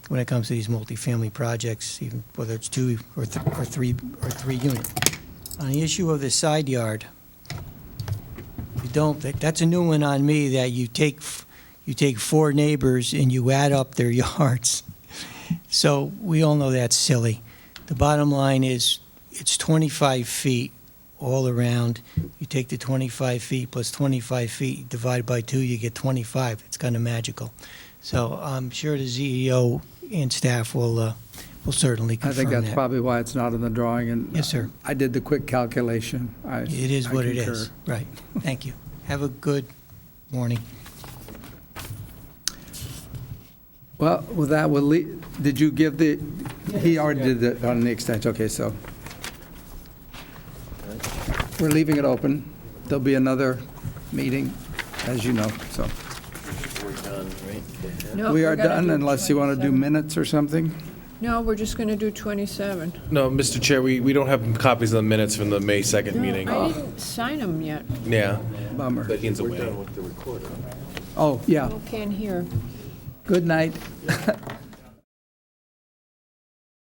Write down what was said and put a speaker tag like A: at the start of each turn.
A: when it comes to these multifamily projects, even whether it's two or th- or three, or three unit. On the issue of the side yard, you don't, that- that's a new one on me, that you take, f- you take four neighbors and you add up their yards. So we all know that's silly. The bottom line is, it's 25 feet all around. You take the 25 feet plus 25 feet, divide by two, you get 25. It's kind of magical. So I'm sure the ZEO and staff will, uh, will certainly
B: I
A: confirm
B: think
A: that.
B: that's probably why it's not in the drawing, and.
A: Yes, sir.
B: I did the quick calculation. I-
A: It is
B: I
A: what it
B: concur.
A: is. Right. Thank you. Have a good morning.
B: Well, with that, we'll leave, did you give the, he already did it on the extension, okay, so. We're leaving it open. There'll be another meeting, as you know, so.
C: We're done, right?
D: No,
B: We
D: we're
B: are
D: gonna
B: done
D: Oh, do
B: unless you want to do
D: 27.
B: minutes or something?
D: No, we're just going to do 27.
E: No, Mr. Chair, we, we don't have copies of the minutes from the May 2nd meeting.
D: I didn't sign them yet.
E: Yeah,
B: Bummer.
E: but Ian's
C: We're
E: away.
C: done with the recorder.
B: Oh, yeah.
D: People can't hear.
B: Good night.